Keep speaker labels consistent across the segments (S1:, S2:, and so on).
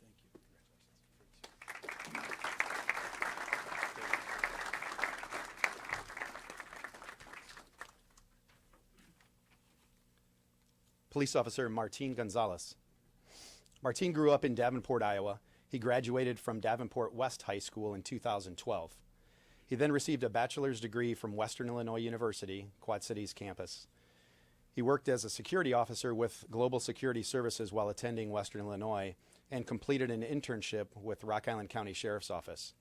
S1: Thank you. Congratulations. Police Officer Martin Gonzalez. Martin grew up in Davenport, Iowa. He graduated from Davenport West High School in 2012. He then received a bachelor's degree from Western Illinois University, Quad Cities campus. He worked as a security officer with Global Security Services while attending Western Illinois and completed an internship with Rock Island County Sheriff's Office.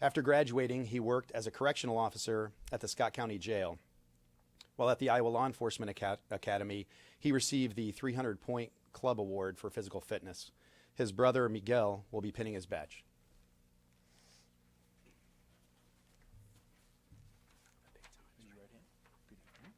S1: After graduating, he worked as a correctional officer at the Scott County Jail. While at the Iowa Law Enforcement Aca- Academy, he received the 300 Point Club Award for physical fitness. His brother, Miguel, will be pinning his badge.
S2: Raise your right hand. Repeat after me.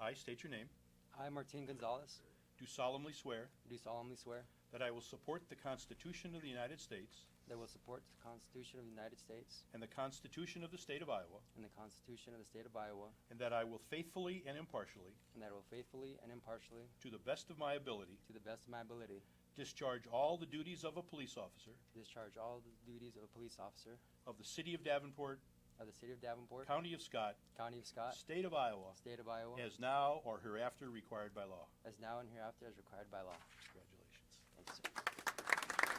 S2: I state your name,
S3: I, Martin Gonzalez,
S2: do solemnly swear
S3: do solemnly swear
S2: that I will support the Constitution of the United States
S3: that I will support the Constitution of the United States
S2: and the Constitution of the State of Iowa,
S3: and the Constitution of the State of Iowa,
S2: and that I will faithfully and impartially,
S3: and that I will faithfully and impartially,
S2: to the best of my ability,
S3: to the best of my ability,
S2: discharge all the duties of a police officer
S3: discharge all the duties of a police officer
S2: of the City of Davenport,
S3: of the City of Davenport,
S2: County of Scott,
S3: County of Scott,
S2: State of Iowa,
S3: State of Iowa,
S2: as now or hereafter required by law.
S3: as now and hereafter as required by law.
S2: Congratulations.
S3: Thank you, sir.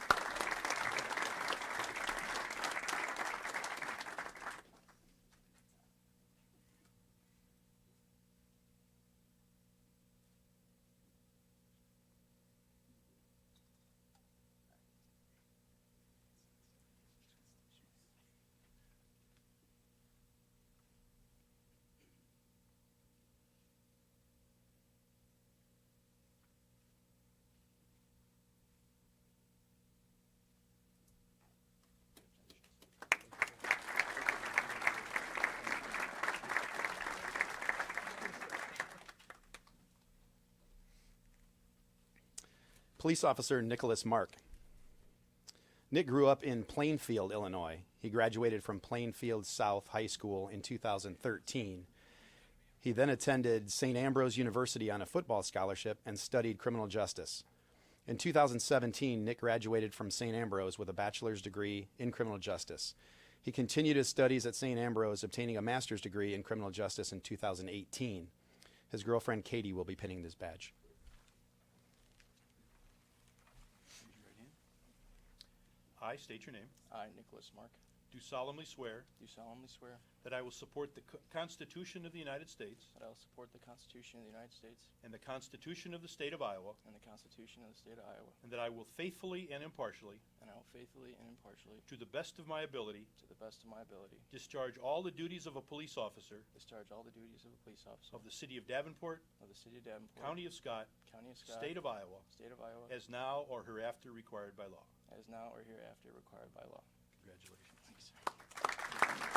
S1: Police Officer Nicholas Mark. Nick grew up in Plainfield, Illinois. He graduated from Plainfield South High School in 2013. He then attended St. Ambrose University on a football scholarship and studied criminal justice. In 2017, Nick graduated from St. Ambrose with a bachelor's degree in criminal justice. He continued his studies at St. Ambrose, obtaining a master's degree in criminal justice in 2018. His girlfriend Katie will be pinning this badge.
S2: Raise your right hand. I state your name,
S4: I, Nicholas Mark,
S2: do solemnly swear
S4: do solemnly swear
S2: that I will support the Co- Constitution of the United States
S4: that I will support the Constitution of the United States
S2: and the Constitution of the State of Iowa,
S4: and the Constitution of the State of Iowa,
S2: And that I will faithfully and impartially,
S4: and I will faithfully and impartially,
S2: to the best of my ability,
S4: to the best of my ability,
S2: discharge all the duties of a police officer
S4: discharge all the duties of a police officer
S2: of the City of Davenport,
S4: of the City of Davenport,
S2: County of Scott,
S4: County of Scott,
S2: State of Iowa,
S4: State of Iowa,
S2: as now or hereafter required by law.
S4: as now or hereafter required by law.
S2: Congratulations.
S4: Thanks, sir.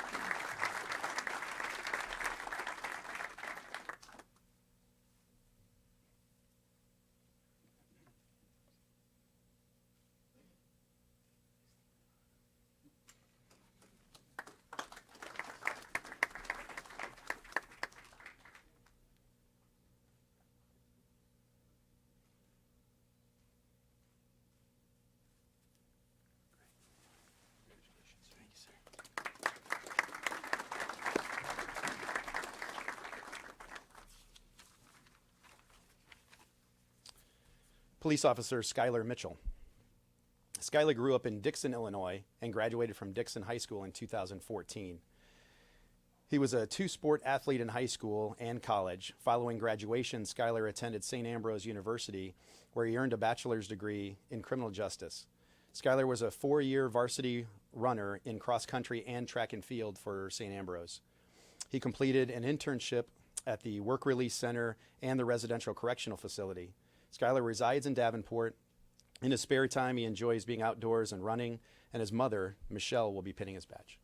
S2: Congratulations.
S4: Thank you, sir.
S1: police officer Skylar Mitchell. Skylar grew up in Dixon, Illinois, and graduated from Dixon High School in 2014. He was a two sport athlete in high school and college. Following graduation, Skylar attended St. Ambrose University, where he earned a bachelor's degree in criminal justice. Skylar was a four year varsity runner in cross country and track and field for St. Ambrose. He completed an internship at the Work Release Center and the Residential Correctional Facility. Skylar resides in Davenport. In his spare time, he enjoys being outdoors and running, and his mother, Michelle, will be pinning his badge.